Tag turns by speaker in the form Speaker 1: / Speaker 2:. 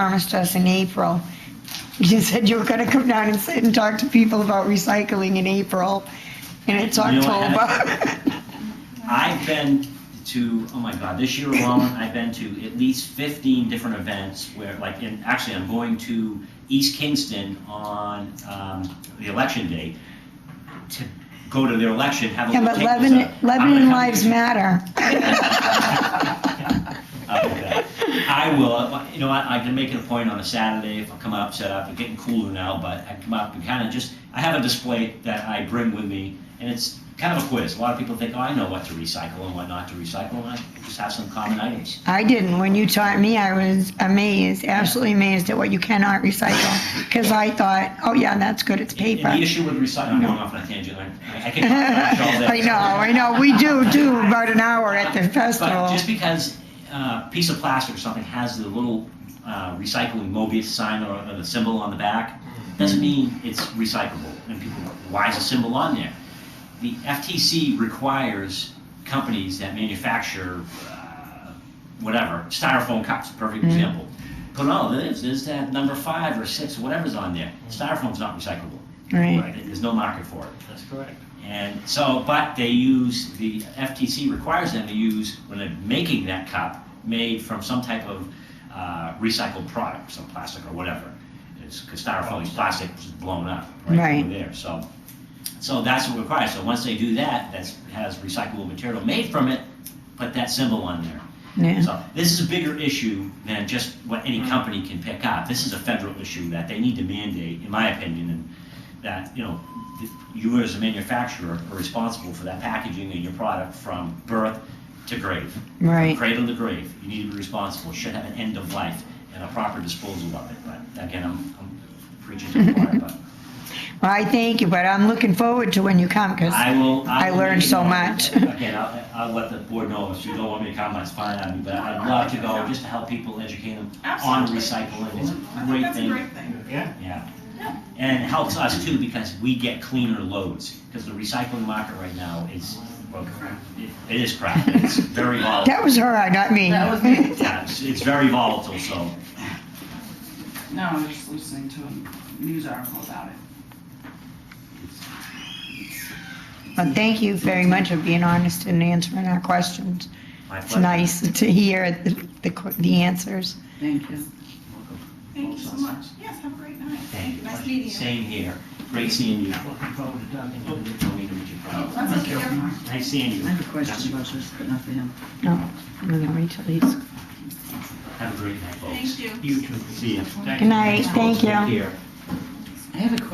Speaker 1: asked us in April. You said you were gonna come down and sit and talk to people about recycling in April, and it's
Speaker 2: You know what?
Speaker 1: October.
Speaker 2: I've been to, oh my God, this year alone, I've been to at least 15 different events where, like, in, actually, I'm going to East Kingston on um, the election day to go to their election, have a
Speaker 1: Yeah,
Speaker 2: little
Speaker 1: but
Speaker 2: tables
Speaker 1: Lebanon,
Speaker 2: up. I'm gonna
Speaker 1: Lebanon
Speaker 2: come-
Speaker 1: lives matter.
Speaker 2: Okay. I will, you know, I, I can make it a point on a Saturday if I come up, set up, it's getting cooler now, but I come up and kind of just, I have a display that I bring with me, and it's kind of a quiz. A lot of people think, oh, I know what to recycle and what not to recycle, and I just have some common items.
Speaker 1: I didn't. When you taught me, I was amazed, absolutely amazed at what you cannot recycle. Because I thought, oh yeah, that's good, it's
Speaker 2: And
Speaker 1: paper.
Speaker 2: the issue with recycling, I'm going off on a tangent, I, I can talk about it all day.
Speaker 1: I know, I know. We do do about an hour at the
Speaker 2: But
Speaker 1: festival.
Speaker 2: just because uh, a piece of plastic or something has the little uh, recycling Mobius sign or or the symbol on the back, doesn't mean it's recyclable. And people, why is a symbol on there? The FTC requires companies that manufacture uh, whatever, styrofoam cups, perfect example. Put all it is, is that number five or six, whatever's on there. Styrofoam's not recyclable.
Speaker 1: Right.
Speaker 2: There's no market for it.
Speaker 3: That's correct.
Speaker 2: And so, but they use, the FTC requires them to use, when they're making that cup, made from some type of uh, recycled product, some plastic or whatever. Because styrofoam is plastic, it's blown up, right
Speaker 1: Right.
Speaker 2: over there, so. So that's what required, so once they do that, that's, has recyclable material made from it, put that symbol on there.
Speaker 1: Yeah. Mm-hmm.
Speaker 2: So this is a bigger issue than just what any company can pick up. This is a federal issue that they need to mandate, in my opinion, and that, you know, th- you as a manufacturer are responsible for that packaging and your product from birth to grave. From
Speaker 1: Right.
Speaker 2: Cradle to grave. You need to be responsible. Should have an end of life and a proper disposal of it. But again, I'm, I'm preaching to the choir, but
Speaker 1: Well, I thank you, but I'm looking forward to when you come, because
Speaker 2: I will.
Speaker 1: I
Speaker 2: will
Speaker 1: learned
Speaker 2: be-
Speaker 1: so much.
Speaker 2: Again, I'll, I'll let the board know if you don't want me to come, that's fine on me, but I'd love to go just to help people, educate them on
Speaker 4: Absolutely.
Speaker 2: recycling. It's a
Speaker 4: I think
Speaker 2: great
Speaker 4: that's a
Speaker 2: thing.
Speaker 4: great thing.
Speaker 3: Yeah.
Speaker 2: Yeah. And it helps us too because we get cleaner loads because the recycling market right now is, well, it- it is crap. It's very volatile.
Speaker 1: that was her, not me.
Speaker 4: That was me.
Speaker 2: Yeah, It's it's very volatile, so.
Speaker 4: No, I was just listening to a news article about it.
Speaker 1: Well, thank you very much for being honest and answering our questions.
Speaker 2: my
Speaker 1: It's
Speaker 2: pleasure.
Speaker 1: nice to hear the, the, qu- the answers.
Speaker 4: Thank you.
Speaker 2: Welcome.
Speaker 4: Thank you so much. Yes, have a great night. Thank you. Nice meeting you.
Speaker 2: Same here. Great seeing you.
Speaker 3: Looking forward to talking to you.
Speaker 4: Oh, that's okay. Never mind.
Speaker 2: Nice seeing you.
Speaker 5: I have a question about this, but not for him.
Speaker 1: No, no, no, Rachel, please.
Speaker 2: Have a great night, folks.
Speaker 4: Thank you.
Speaker 3: You too.
Speaker 2: See ya.
Speaker 1: Good night, thank you.
Speaker 2: Here.
Speaker 5: I have a question